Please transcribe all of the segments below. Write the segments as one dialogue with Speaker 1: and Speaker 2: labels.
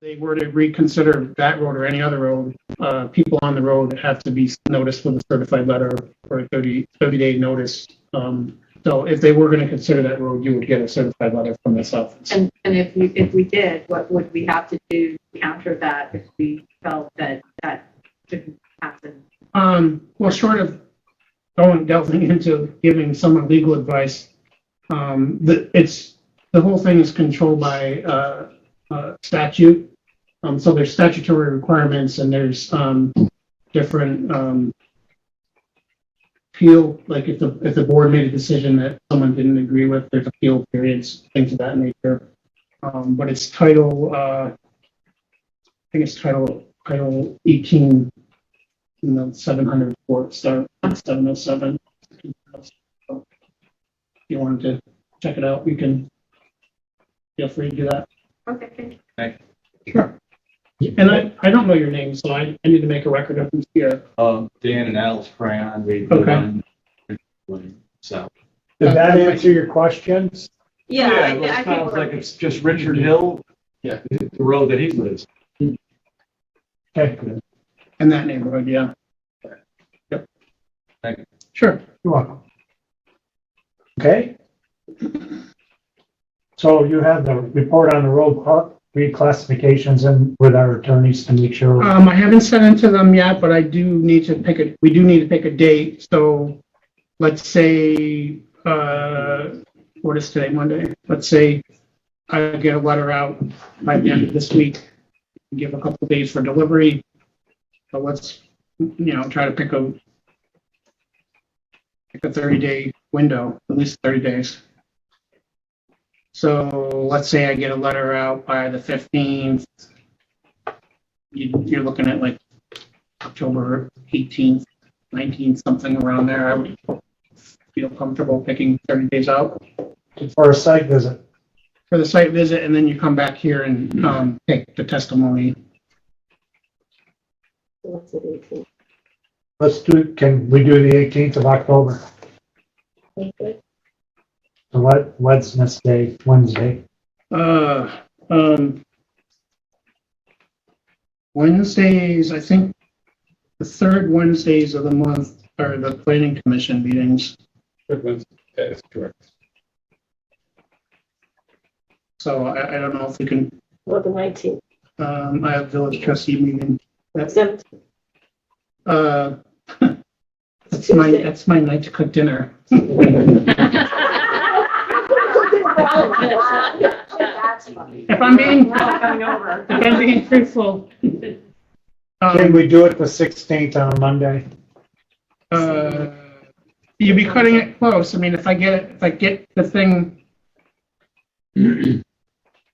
Speaker 1: they were to reconsider that road or any other road, uh, people on the road have to be noticed with a certified letter or a 30 30 day notice. Um, so if they were going to consider that road, you would get a certified letter from this office.
Speaker 2: And, and if we, if we did, what would we have to do to counter that if we felt that that shouldn't happen?
Speaker 1: Um, well, short of going delving into giving someone legal advice, um, the, it's, the whole thing is controlled by, uh, uh, statute. Um, so there's statutory requirements and there's, um, different, um, appeal, like if the, if the board made a decision that someone didn't agree with, there's appeal periods, things of that nature. Um, but it's title, uh, I think it's title, title eighteen, you know, seven hundred four, start, seven oh seven. If you wanted to check it out, you can feel free to do that.
Speaker 2: Okay, thank you.
Speaker 1: Sure. And I, I don't know your name, so I, I need to make a record of who's here.
Speaker 3: Um, Dan and Alice Crayon, we
Speaker 1: Okay.
Speaker 3: live on, so.
Speaker 4: Did that answer your questions?
Speaker 2: Yeah, I
Speaker 3: well,
Speaker 2: thi- I
Speaker 3: It sounds like
Speaker 2: think
Speaker 3: it's just Richard Hill. Yeah. The road that he lives.
Speaker 4: Okay,
Speaker 1: In that neighborhood, yeah. Yep.
Speaker 3: Thank you.
Speaker 1: Sure.
Speaker 4: you're welcome. Okay? So you have the report on the road cla- reclassifications and with our attorneys to make sure.
Speaker 1: Um, I haven't sent it to them yet, but I do need to pick a, we do need to pick a date, so let's say, uh, what is today, Monday? Let's say I get a letter out by the end of this week, give a couple days for delivery. So let's, you know, try to pick a pick a thirty day window, at least thirty days. So let's say I get a letter out by the fifteenth, you, you're looking at like October 18th, 19th, something around there. I would feel comfortable picking 30 days out
Speaker 4: For a site visit,
Speaker 1: for the site visit, and then you come back here
Speaker 3: Mm-hmm.
Speaker 1: and um, take the testimony.
Speaker 4: let's do, can we do the 18th of October? So what, Wednesday, Day, Wednesday?
Speaker 1: Uh, um, Wednesdays, I think the third Wednesdays of the month are the planning commission meetings.
Speaker 3: That's correct.
Speaker 1: So I, I don't know if we can,
Speaker 5: Well, the nineteenth,
Speaker 1: um, I have village trustee meeting. That's,
Speaker 5: seventeenth,
Speaker 1: uh, that's my,
Speaker 5: Tuesday.
Speaker 1: that's my night to cook dinner. If I'm being, if I'm being truthful.
Speaker 4: Can
Speaker 1: Um,
Speaker 4: we do it the 16th on a Monday?
Speaker 1: uh, you'd be cutting it close. I mean, if I get, if I get the thing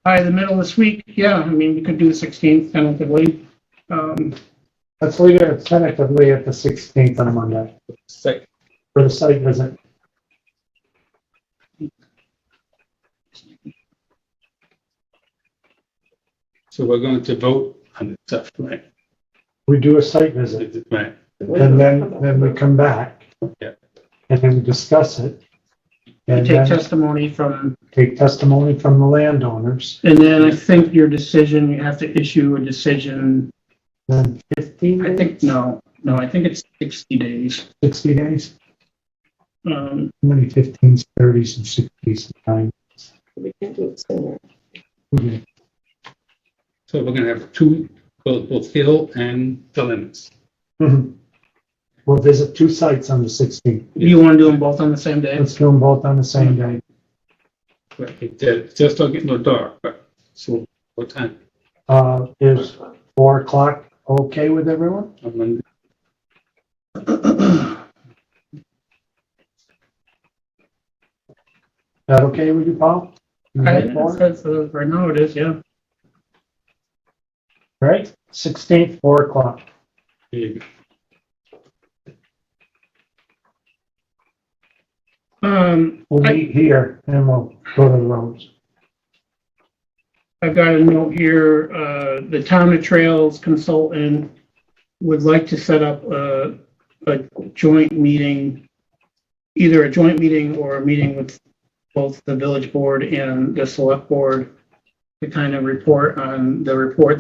Speaker 1: by the middle of this week, yeah, I mean, we could do the sixteenth tentatively. Um,
Speaker 4: Let's leave it tentatively at the 16th on a Monday for the site visit.
Speaker 6: So we're going to vote on the stuff, right?
Speaker 4: We do a site visit.
Speaker 6: Right.
Speaker 4: And then, then we come back.
Speaker 6: Yeah.
Speaker 4: And then we discuss it.
Speaker 1: you
Speaker 4: And
Speaker 1: take
Speaker 4: then
Speaker 1: testimony from,
Speaker 4: take testimony from the landowners.
Speaker 1: and then I think your decision, you have to issue a decision.
Speaker 4: Then fifteen
Speaker 1: I
Speaker 4: days,
Speaker 1: think, no, no, I think it's sixty days.
Speaker 4: sixty days,
Speaker 1: Um,
Speaker 4: How many fifteens, thirties and sixties and
Speaker 5: We can do it sooner.
Speaker 4: nine.
Speaker 1: Mm-hmm.
Speaker 6: So we're gonna have two, both, both Hill and the limits.
Speaker 4: Mhm. We'll visit two sites on the sixteenth.
Speaker 1: do you want to do them both on the same day?
Speaker 4: Let's do them both on the same day.
Speaker 6: Right, it did, just don't get no dark, but, so, what time?
Speaker 4: Uh, is four o'clock okay with everyone?
Speaker 6: On Monday?
Speaker 4: That okay with you, Paul? You
Speaker 1: I,
Speaker 4: like four?
Speaker 1: that's, uh, right now it is, yeah.
Speaker 4: Right, sixteenth, four o'clock.
Speaker 6: There you go.
Speaker 1: Um,
Speaker 4: We'll
Speaker 1: I-
Speaker 4: meet here and we'll go to the roads.
Speaker 1: I've got a note here, uh, the town of trails consultant would like to set up a, a joint meeting, either a joint meeting or a meeting with both the village board and the select board to kind of report on the report